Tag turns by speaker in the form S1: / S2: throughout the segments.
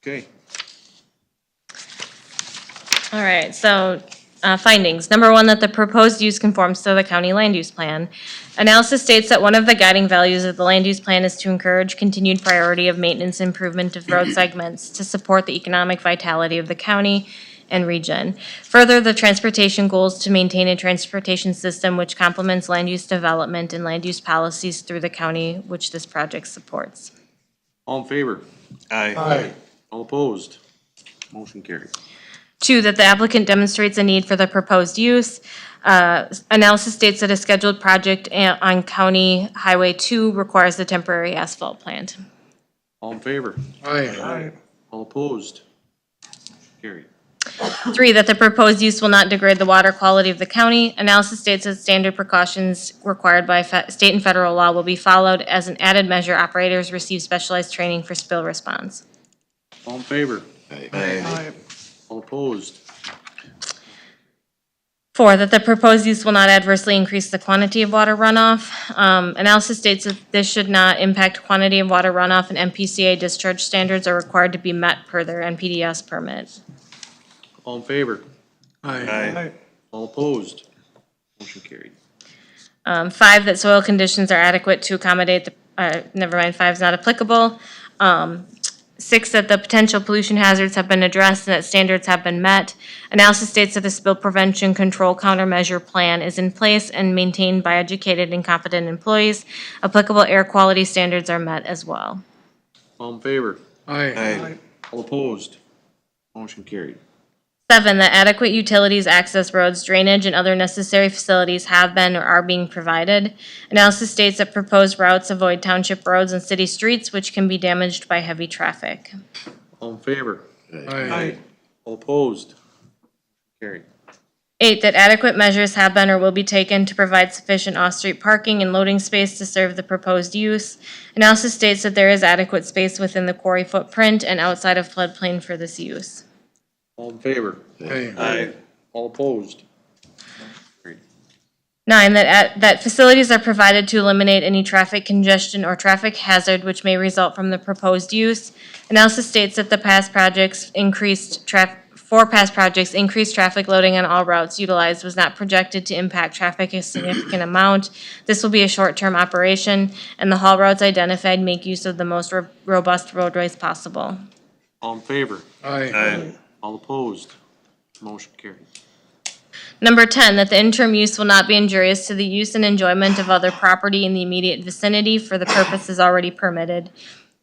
S1: Okay,
S2: All right, so uh, findings. Number one, that the proposed use conforms to the county land use plan. Analysis states that one of the guiding values of the land use plan is to encourage continued priority of maintenance improvement of road segments to support the economic vitality of the county and region. Further, the transportation goals to maintain a transportation system which complements land use development and land use policies through the county which this project supports.
S1: all in favor?
S3: Aye.
S1: All opposed? Motion carried.
S2: Two, that the applicant demonstrates a need for the proposed use. Uh, Analysis states that a scheduled project a- on County Highway 2 requires a temporary asphalt plant.
S1: All in favor?
S3: Aye.
S1: All opposed? Carried.
S2: Three, that the proposed use will not degrade the water quality of the county. Analysis states that standard precautions required by fe- state and federal law will be followed. As an added measure, operators receive specialized training for spill response.
S1: All in favor?
S3: Aye.
S1: All opposed?
S2: Four, that the proposed use will not adversely increase the quantity of water runoff. Um, Analysis states that this should not impact quantity of water runoff, and MPCA discharge standards are required to be met per their NPDS permit.
S1: All in favor?
S3: Aye.
S1: All opposed? Motion carried.
S2: Um, Five, that soil conditions are adequate to accommodate, the. uh, never mind, five's not applicable. Um, Six, that the potential pollution hazards have been addressed and that standards have been met. Analysis states that the spill prevention control countermeasure plan is in place and maintained by educated and competent employees. Applicable air quality standards are met as well.
S1: All in favor?
S3: Aye.
S1: All opposed? Motion carried.
S2: Seven, that adequate utilities, access roads, drainage, and other necessary facilities have been or are being provided. Analysis states that proposed routes avoid township roads and city streets which can be damaged by heavy traffic.
S1: All in favor?
S3: Aye.
S1: All opposed? Carried.
S2: Eight, that adequate measures have been or will be taken to provide sufficient off-street parking and loading space to serve the proposed use. Analysis states that there is adequate space within the quarry footprint and outside of floodplain for this use.
S1: All in favor?
S3: Aye.
S1: All opposed? Carried.
S2: Nine, that, at- that facilities are provided to eliminate any traffic congestion or traffic hazard which may result from the proposed use. Analysis states that the past projects increased traf, for past projects, increased traffic loading on all routes utilized was not projected to impact traffic a significant amount. This will be a short-term operation, and the haul routes identified make use of the most ro- robust roadways possible.
S1: All in favor?
S3: Aye.
S1: All opposed? Motion carried.
S2: Number 10, that the interim use will not be injurious to the use and enjoyment of other property in the immediate vicinity for the purposes already permitted.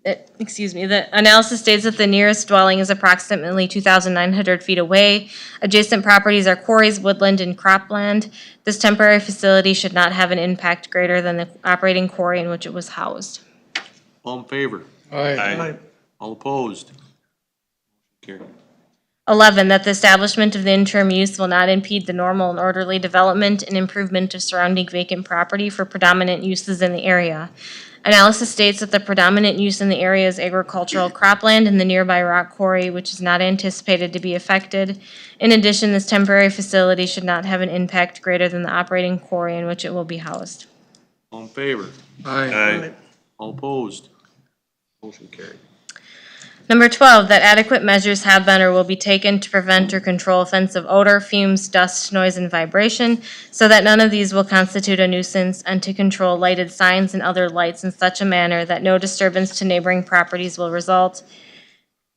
S2: Uh, Excuse me, the analysis states that the nearest dwelling is approximately 2,900 feet away. Adjacent properties are quarries, woodland, and cropland. This temporary facility should not have an impact greater than the operating quarry in which it was housed.
S1: All in favor?
S3: Aye.
S1: All opposed? Carried.
S2: 11, that the establishment of the interim use will not impede the normal and orderly development and improvement of surrounding vacant property for predominant uses in the area. Analysis states that the predominant use in the area is agricultural cropland and the nearby rock quarry, which is not anticipated to be affected. In addition, this temporary facility should not have an impact greater than the operating quarry in which it will be housed.
S1: All in favor?
S3: Aye.
S1: All opposed? Motion carried.
S2: Number 12, that adequate measures have been or will be taken to prevent or control offensive odor, fumes, dust, noise, and vibration, so that none of these will constitute a nuisance, and to control lighted signs and other lights in such a manner that no disturbance to neighboring properties will result.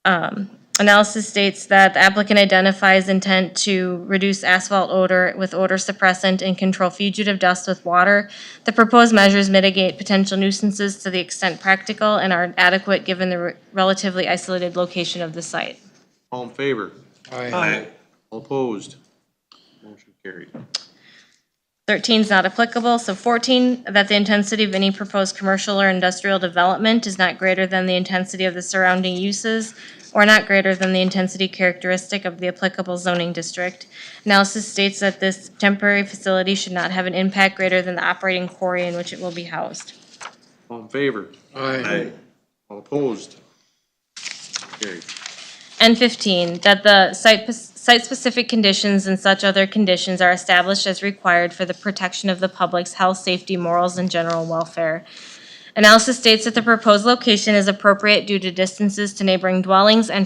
S2: Um, Analysis states that the applicant identifies intent to reduce asphalt odor with odor suppressant and control fugitive dust with water. The proposed measures mitigate potential nuisances to the extent practical and are adequate given the re- relatively isolated location of the site.
S1: All in favor?
S3: Aye.
S1: All opposed? Motion carried.
S2: 13 is not applicable, so 14, that the intensity of any proposed commercial or industrial development is not greater than the intensity of the surrounding uses or not greater than the intensity characteristic of the applicable zoning district. Analysis states that this temporary facility should not have an impact greater than the operating quarry in which it will be housed.
S1: All in favor?
S3: Aye.
S1: All opposed? Carried.
S2: And 15, that the site, site-specific conditions and such other conditions are established as required for the protection of the public's health, safety, morals, and general welfare. Analysis states that the proposed location is appropriate due to distances to neighboring dwellings and